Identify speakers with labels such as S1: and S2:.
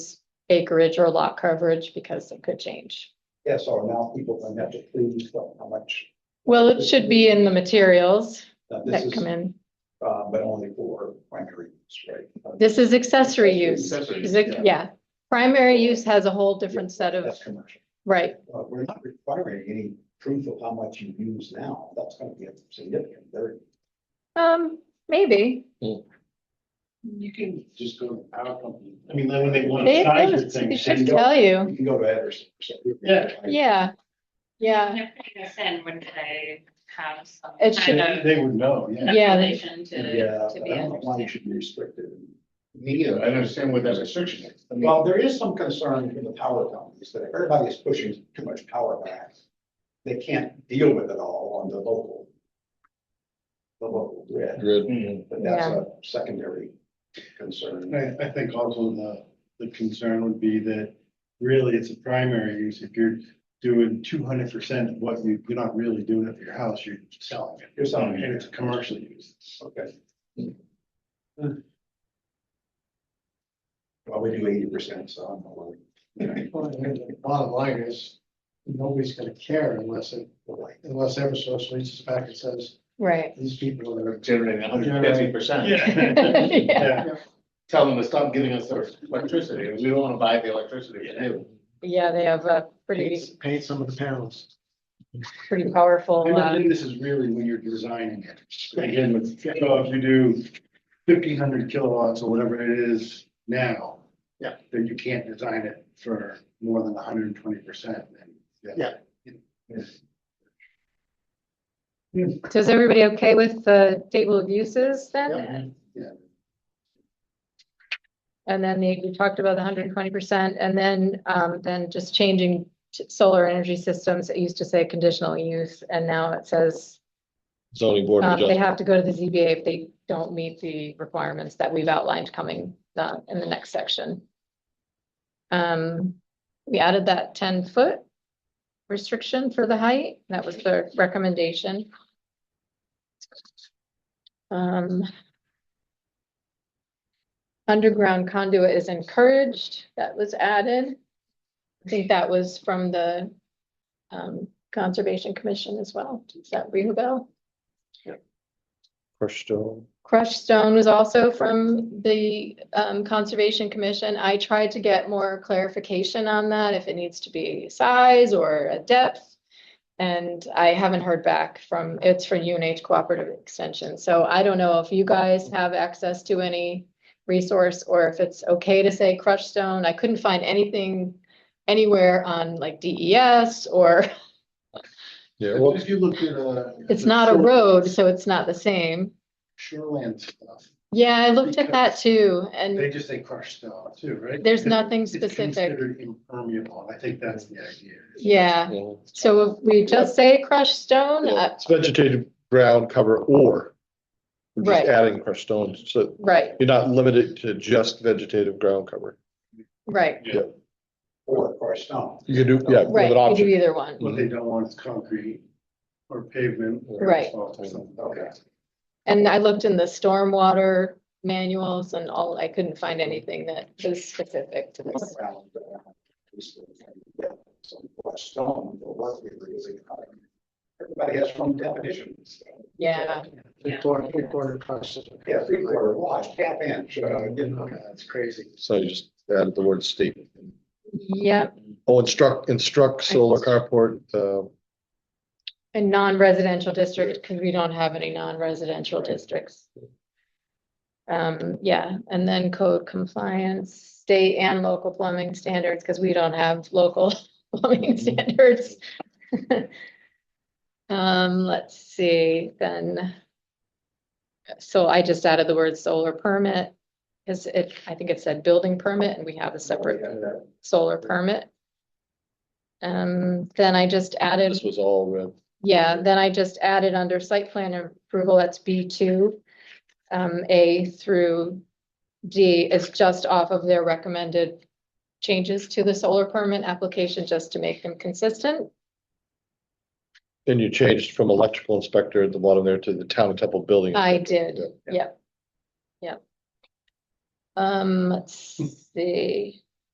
S1: acreage or lot coverage because it could change.
S2: Yeah, so now people can have to please, what- how much,
S1: Well, it should be in the materials
S2: now this
S1: that
S2: is,
S1: come in.
S2: uh, but only for primary use, right? Uh,
S1: This is accessory use.
S2: accessory
S1: Is
S2: use,
S1: it- Yeah, primary use has a whole different set of,
S2: That's commercial.
S1: right,
S2: Uh, we're not requiring any proof of how much you use now, that's gonna be significant, they're
S1: um, maybe.
S3: You can just go to power company. I mean, then when they want
S1: They,
S3: to
S1: they
S3: size
S1: would-
S3: it
S1: they
S3: things.
S1: should tell you.
S2: You can go to Ederson. or something.
S3: Yeah.
S1: Yeah, yeah,
S4: They're putting us in, wouldn't they have some?
S1: It should-
S4: kind of
S3: They would know, yeah.
S1: Yeah, they-
S4: Calculation
S2: Yeah,
S4: to, to
S2: but
S4: be
S2: I don't know why you
S4: understood.
S2: should be restricted.
S3: Neither, I understand what that restriction is. I mean,
S2: Well, there is some concern in the power companies that if everybody is pushing too much power back. They can't deal with it all on the local. The local grid,
S3: mm,
S2: but that's a secondary concern.
S3: I, I think also the, the concern would be that really it's a primary use. If you're doing two hundred percent of what you, you're not really doing it for your house, you're selling it.
S2: You're selling it.
S3: And it's a commercial use.
S2: Okay. Well, we do eighty percent, so I'm not worried.
S5: Bottom line is, nobody's gonna care unless it, unless Eversource reaches back and says,
S1: right.
S5: these people are.
S3: Generating
S5: hundred and fifty
S3: percent.
S1: Yeah,
S3: Yeah. Tell them to stop giving us their electricity. We don't want to buy the electricity. they do.
S1: Yeah, they have a pretty,
S5: Paint paint some of the panels.
S1: pretty powerful,
S3: And I
S1: uh,
S3: think this is really when you're designing it. Again, with, so if you do fifteen hundred kilowatts or whatever it is now.
S5: Yeah.
S3: Then you can't design it for more than hundred and twenty percent.
S1: so is everybody okay with the table of uses
S3: Yeah.
S1: then? And then the, we talked about the hundred and twenty percent and then, um, then just changing t- solar energy systems. It used to say conditional use and now it says
S6: zoning board of
S1: um, they
S6: adjustment.
S1: have to go to the ZBA if they don't meet the requirements that we've outlined coming uh, in the next section. Um, we added that ten foot restriction for the height. That was the recommendation. Um. Underground conduit is encouraged. That was added. I think that was from the um, Conservation Commission as well. Does that ring a bell?
S6: Crushed stone.
S1: Crushed stone was also from the um Conservation Commission. I tried to get more clarification on that, if it needs to be size or a depth. And I haven't heard back from, it's for UNH Cooperative Extension, so I don't know if you guys have access to any resource or if it's okay to say crushed stone. I couldn't find anything anywhere on like DES or
S6: Yeah, well,
S3: If you look at uh
S1: it's not a road, so it's not the same.
S3: Shoreland stuff,
S1: Yeah, I looked at that too and.
S3: they just say crushed stone too, right?
S1: There's nothing
S3: It's
S1: specific.
S3: considered Impermeable, I think that's the idea.
S1: Yeah,
S6: yeah.
S1: so if we just say crushed stone, uh,
S6: It's vegetated ground cover or. we're
S1: Right.
S6: Just adding crushed stone, so
S1: right,
S6: you're not limited to just vegetative ground cover.
S1: right,
S2: Or, or stone.
S6: You can do, yeah, with
S1: right,
S6: an
S1: you do
S6: option.
S1: either one.
S3: What they don't want is concrete or pavement. or
S1: Right.
S3: asphalt or something.
S2: Okay.
S1: And I looked in the stormwater manuals and all, I couldn't find anything that was specific to this.
S2: around, uh, just, uh, Some stone, or what we're using. Everybody has some definitions.
S1: Yeah,
S5: Three quarter, three quarter crushes.
S2: Yeah, three quarter wash, half inch, uh, you know.
S5: That's crazy.
S6: So you just added the word state.
S1: yeah,
S6: Oh, instruct, instruct solar carport, uh,
S1: and non-residential district, because we don't have any non-residential districts. Um, yeah, and then code compliance, state and local plumbing standards, because we don't have local plumbing standards. Um, let's see, then. So I just added the word solar permit, because it, I think it said building permit, and we have a separate
S2: Oh,
S1: solar permit. Um, then I just added.
S6: this was all red.
S1: Yeah, then I just added under site plan approval, that's B two. Um, A through D is just off of their recommended changes to the solar permit application, just to make them consistent.
S6: And you changed from electrical inspector at the bottom there to the town and temple building.
S1: I did, yep. Yep. Um, let's see.